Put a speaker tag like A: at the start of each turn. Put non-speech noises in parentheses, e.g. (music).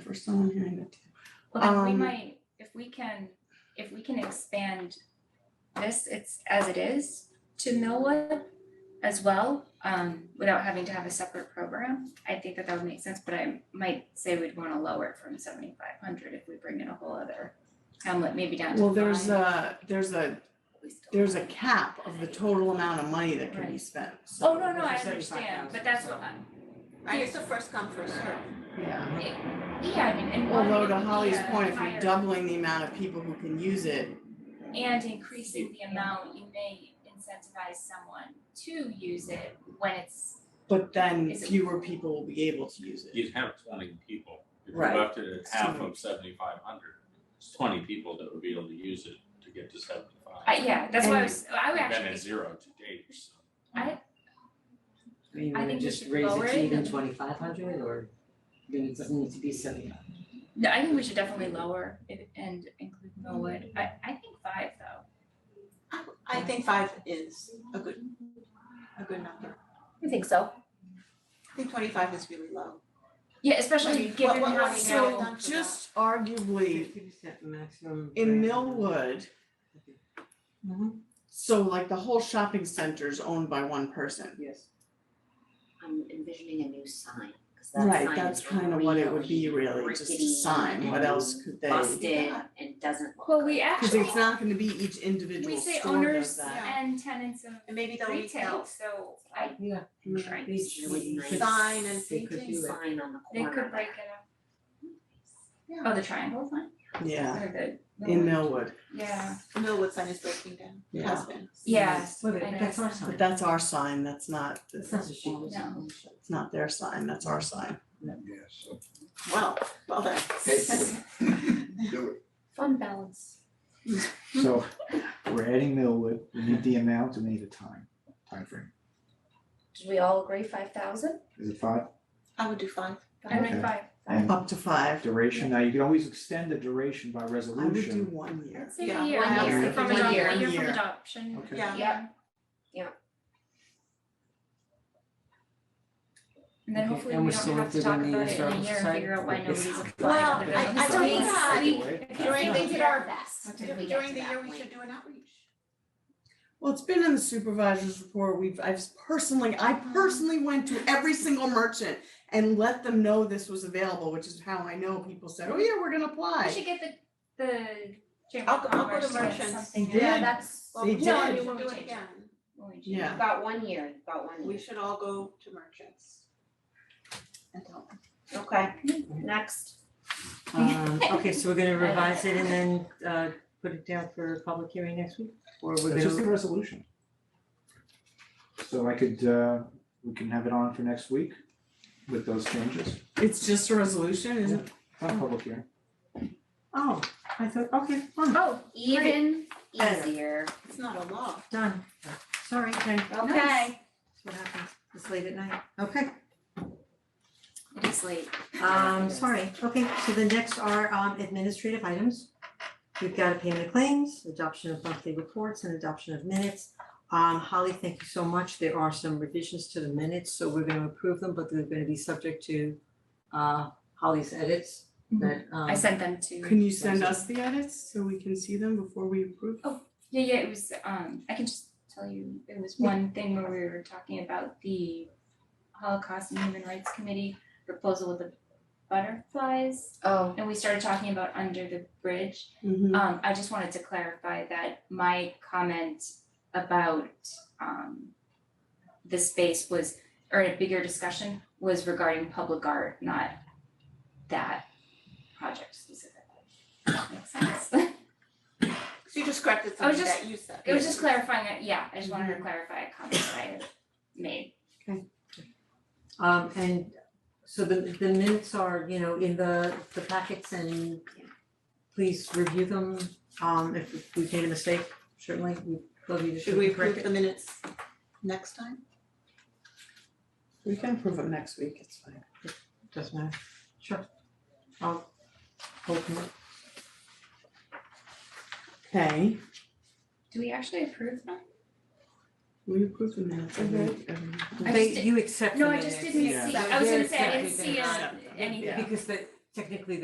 A: for someone hearing it.
B: Well, then we
A: Um,
B: might, if we can, if we can expand this, it's as it is to Millwood as well, um, without having to have a separate program, I think that that would make sense, but I might say we'd wanna lower it from seventy-five hundred if we bring in a whole other hamlet, maybe down to five.
A: Well, there's a, there's a,
B: We still-
A: there's a cap of the total amount of money that can be spent, so.
B: Oh, no, no, I
C: Seventy-five
B: understand,
C: thousand,
B: but that's
C: so-
B: what I'm,
D: Right, it's the first come, first served.
A: Yeah.
B: yeah, I mean, and one,
A: Although
B: it
A: to
B: would be
A: Holly's
B: a
A: point, if
B: higher-
A: you're doubling the amount of people who can use it,
B: And increasing the amount, you may incentivize someone to use it when it's,
A: but then
B: Is it-
A: fewer people will be able to use it.
E: You'd have twenty people, if you
A: Right.
E: left it at half
A: Twenty.
E: of seventy-five hundred, it's twenty people that would be able to use it to get to seventy-five.
B: I, yeah, that's why I
A: And-
B: was, I would
E: You've been
B: actually,
E: at zero to date, so.
C: I mean,
B: I
C: would it
B: think we
C: just
B: should
C: raise
B: lower
C: it
B: it
C: to even
B: and-
C: twenty-five hundred or, I mean, it doesn't need to be seventy-five.
B: no, I think we should definitely lower it and include Millwood, I, I think five though.
D: I I think five is a good, a good number.
F: I think so.
D: I think twenty-five is really low.
B: Yeah, especially
D: What-
B: given
D: what-
B: how
D: what's
B: we
D: the
B: know,
D: done for that?
A: Just arguably,
C: Fifty percent maximum.
A: in Millwood, Mm-hmm. so like the whole shopping center is owned by one person.
C: Yes.
F: I'm envisioning a new sign, cause that sign
A: Right,
F: is
A: that's kind of what it would be
F: really
A: really, just a
F: rickety
A: sign, what
F: and
A: else could they?
F: Busted and doesn't look.
B: well, we
A: Cause
B: actually,
A: it's not gonna be each individual
B: we say
A: store does
B: owners
A: that.
B: and tenants of
D: And maybe they'll
B: retail,
D: retail
B: so I,
C: Yeah.
B: I'm sure I-
C: These
F: Really nice.
D: sign and
C: They could
D: painting.
C: do it.
F: Sign on the
B: they
F: corner.
B: could break it up. Oh, the triangle sign,
A: Yeah,
B: or the.
A: in Millwood,
B: Yeah,
D: Millwood sign is breaking down,
A: Yeah.
D: has been.
B: yeah,
C: Well,
B: I know.
C: that's our sign.
A: but that's our sign, that's not,
C: It's not a shame.
B: No.
A: it's not their sign, that's our sign.
G: Yes,
D: Wow, well done.
G: do
F: Fun balance.
G: it. So we're adding Millwood, we need the amount, we need a time, timeframe.
F: Did we all agree five thousand?
G: Is it five?
D: (laughs) I would do five.
B: I like
G: Okay.
B: five,
G: And
A: Up to five,
G: duration, now you can always extend the duration by
A: I would do
G: resolution.
A: one year.
B: let's say
D: Yeah,
B: a year,
F: one
B: I
G: year.
B: would say from
F: One
B: adoption,
F: year.
B: a year
A: One
B: from
A: year.
B: adoption.
G: Okay.
D: Yeah.
F: Yep. Yep.
B: And then
C: Okay,
B: hopefully
C: and
B: we
C: we're
B: don't
C: still
B: have to
C: doing
B: talk
C: the
B: about it in a year
C: historical
B: and
C: society?
B: figure out why nobody's
C: Well,
B: applied.
D: Well,
B: for the
D: I I
B: business.
D: don't
F: Please.
D: think that,
B: We-
D: During the
F: We did
D: year-
F: our best.
B: During
F: We got
D: during
F: to
D: the
F: that
D: year, we
F: point.
D: should do an outreach.
A: Well, it's been in the supervisor's report, we've, I've personally, I personally went to every single merchant and let them know this was available, which is how I know people said, oh yeah, we're gonna
B: We
A: apply.
B: should get the, the chamber
D: I'll
B: of
D: go- I'll
B: commerce
D: go to
B: to get
D: merchants.
B: something.
A: They
B: Yeah,
A: did.
B: that's.
D: Well,
A: They
D: no, I
A: did.
D: mean, we'll do it again.
B: when we do
A: Yeah.
F: About one year, about one
D: We
F: year.
D: should all go to merchants. And tell them.
F: Okay, next.
C: Um, okay, so we're gonna revise it and then, uh, put it down for a public hearing next week? Or we're
G: It's just a
C: gonna,
G: resolution. So I could, uh, we can have it on for next week with those changes,
A: It's just a resolution, isn't it?
G: not public hearing.
C: oh, I thought, okay, fine,
B: Oh,
F: Even
C: Better.
F: easier.
D: It's not a law.
C: done. Sorry, okay, that's
F: Okay.
C: what happens, it's late at night, okay.
B: it is late.
C: Um, sorry, okay, so the next are um administrative items. We've got a payment of claims, adoption of monthly reports and adoption of minutes. Um, Holly, thank you so much. There are some revisions to the minutes, so we're gonna approve them, but they're gonna be subject to uh Holly's edits
D: Mm-hmm.
C: that um.
B: I sent them to,
A: Can you send us the edits so we can see them before we approve?
B: yeah, yeah, it was, um, I can just tell you, it was one thing where we were talking about the Holocaust and Human Rights Committee proposal with the butterflies.
F: Oh,
B: And we started talking about under the bridge
A: Mhm.
B: Um, I just wanted to clarify that my comment about, um, the space was, or a bigger discussion was regarding public art, not that project specifically. Makes sense. (laughs)
D: So you just corrected
B: I was
D: something
B: just-
D: that you said.
B: It was just clarifying, it. yeah, I just wanted to clarify a comment that I had made.
C: Um, and so the the minutes are, you know, in the the packets and please review them. Um, if if we've made a mistake, certainly we love you to
D: Should we approve
C: correct it.
D: the minutes next time?
A: We can approve them next week, it's fine.
C: Doesn't matter, sure. I'll open it.
A: Okay,
B: Do we actually approve them?
A: we approve the minutes, I think, every-
B: I
C: They-
B: just did-
C: you accept the
B: No, I
C: minutes.
B: just didn't see,
A: Yeah.
B: I was gonna say, I
C: Yeah.
B: didn't see uh,
A: Yeah.
B: anything.
C: Because the technically